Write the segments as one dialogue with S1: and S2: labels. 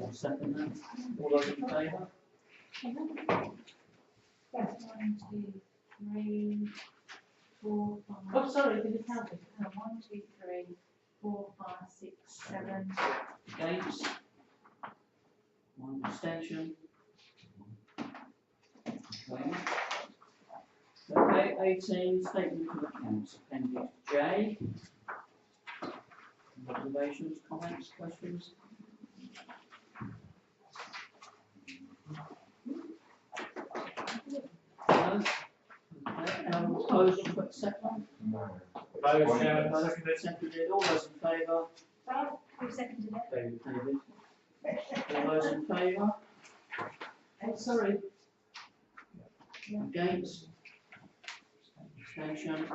S1: will second that. All those in favour?
S2: That's one, two, three, four, five.
S1: Oh, sorry, did it count it?
S2: Uh, One, two, three, four, five, six, seven.
S1: Against? One abstention? Okay. Okay, eighteen, statement of accounts, appendix J. Observations, comments, questions? No? Okay, um, opposed to accept one?
S3: No.
S1: Opposed, Chairman, seconded. all those in favour?
S2: Right, who seconded it?
S1: David, David. All those in favour? Oh, sorry. Against? Abstention?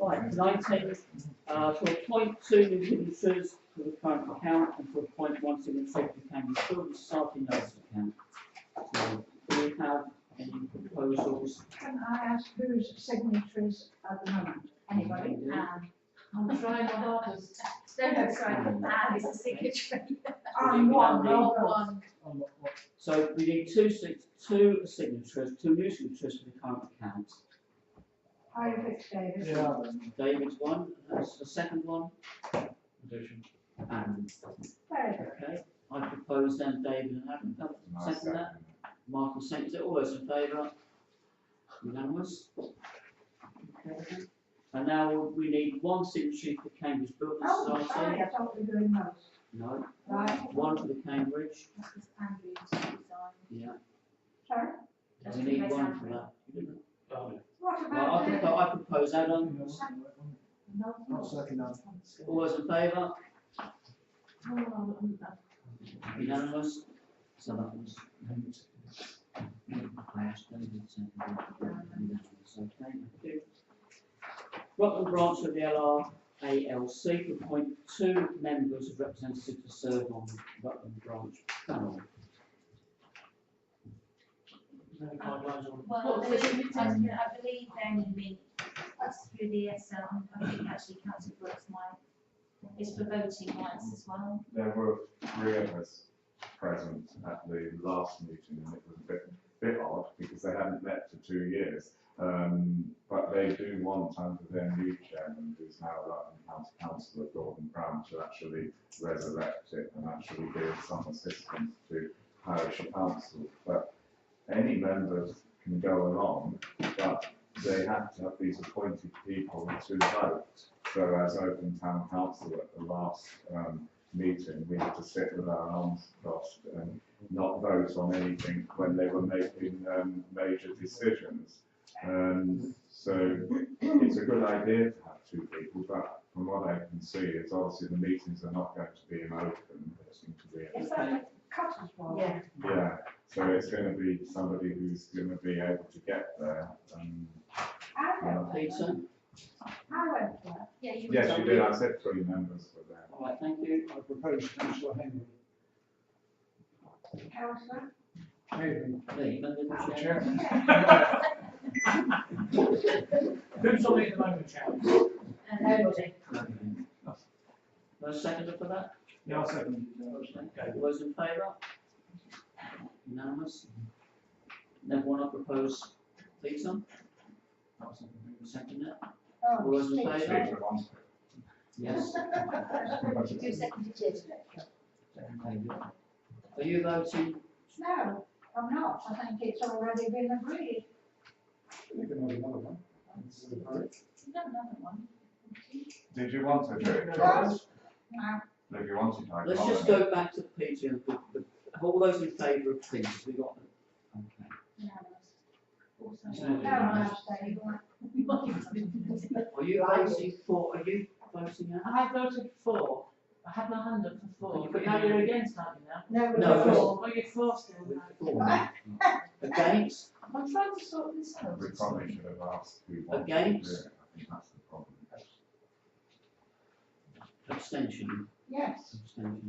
S1: Right, nineteen, uh, to appoint two new signatures to the current account and to appoint one signature to the county children's society notice account. So, do we have any proposals?
S4: Can I ask whose signatories at the moment?
S2: Anybody? Um, I'm trying my hardest. No, no, sorry, ah, it's a signature. Um,
S4: I'm one,
S1: Andy.
S4: no, no.
S2: One,
S1: So we need two sig- two signatures, two new signatures to the current account. Um,
S4: I picked David.
S1: David's one, that's the second one. And,
S4: David,
S1: okay, I propose then David and Adam, uh, second that. Michael seconds it, all those in favour? Unanimous? Okay. And now we need one signature for Cambridge Building
S4: oh,
S1: Society.
S4: sorry, I thought we were doing those.
S1: No,
S4: Right,
S1: one for the Cambridge,
S2: this is Andrew's design.
S1: yeah,
S4: sorry.
S1: we need one for that.
S4: What
S1: Well, I
S4: about
S1: think I
S4: the,
S1: propose Adam,
S2: No,
S3: I'll second that.
S1: all those in favour?
S2: no, no, no, no.
S1: Unanimous? So that was. I asked David, second, unanimous, okay, thank you. Rutland branch of the LRALC to appoint two members of representatives to serve on Rutland branch panel.
S2: Well, I believe- I believe they're moving us through the ESL, I think actually council Brooks might, is for voting rights as well.
S3: There were three of us present at the last meeting and it was a bit, bit odd because they hadn't met for two years. Um, but they do want under their new chairman, who's now Rutland County Councillor Gordon Brown, to actually resurrect it and actually give some assistance to parish council. But any members can go along, but they have to have these appointed people to vote. So as Open Town Council at the last, um, meeting, we had to sit with our arms crossed and not vote on anything when they were making, um, major decisions. And so it's a good idea to have two people, but from what I can see, it's obviously the meetings are not going to be in open, they seem to be.
S4: is that the Cutters one?
S2: Yeah.
S3: Yeah, so it's gonna be somebody who's gonna be able to get there, um,
S4: I went there.
S1: Peter,
S4: I went there.
S2: Yeah, you.
S3: yes, you did, I said three members for that.
S1: all right, thank you.
S5: I propose councillor Henry.
S4: Councillor?
S5: Henry.
S1: Lee, member of the chair.
S5: Chair.
S4: Yeah.
S5: Who's on it at the moment, Chair?
S4: uh,
S2: Nobody.
S1: No second for that?
S5: Yeah, I'll second.
S1: Okay, all those in favour? Unanimous? Then one I propose, Peter? Second it?
S4: Oh,
S1: Was it
S4: Peter.
S1: David?
S3: Peter wants it.
S1: Yes.
S2: Who seconded it?
S1: Second, David. Are you voting?
S4: No, I'm not, I think it's already been agreed.
S5: We can have another one.
S2: No, another one.
S3: Did you want to do it, Charles?
S4: Yes. No,
S3: If you wanted, I can.
S1: Let's just
S3: nominate.
S1: go back to Peter and the, the, all those in favour of Peter, we got them. Okay.
S2: Unanimous.
S1: So-
S2: Also.
S4: no, I'm staying.
S1: Are you voting for, are you voting out?
S6: I voted for, I had my hand up for
S1: Oh, you
S6: four,
S1: put
S6: but
S1: your
S6: now
S1: hand
S6: you're
S1: up.
S6: against, aren't you now?
S4: No, we
S1: No,
S4: were
S1: it's-
S4: all-
S6: Well, you're for still,
S1: We're
S6: aren't
S1: for now. Against?
S6: you? I'm trying to sort this out.
S3: We probably should have asked who wanted to do it.
S1: Against?
S3: I think that's the problem.
S1: Abstention,
S4: yes.
S1: abstention.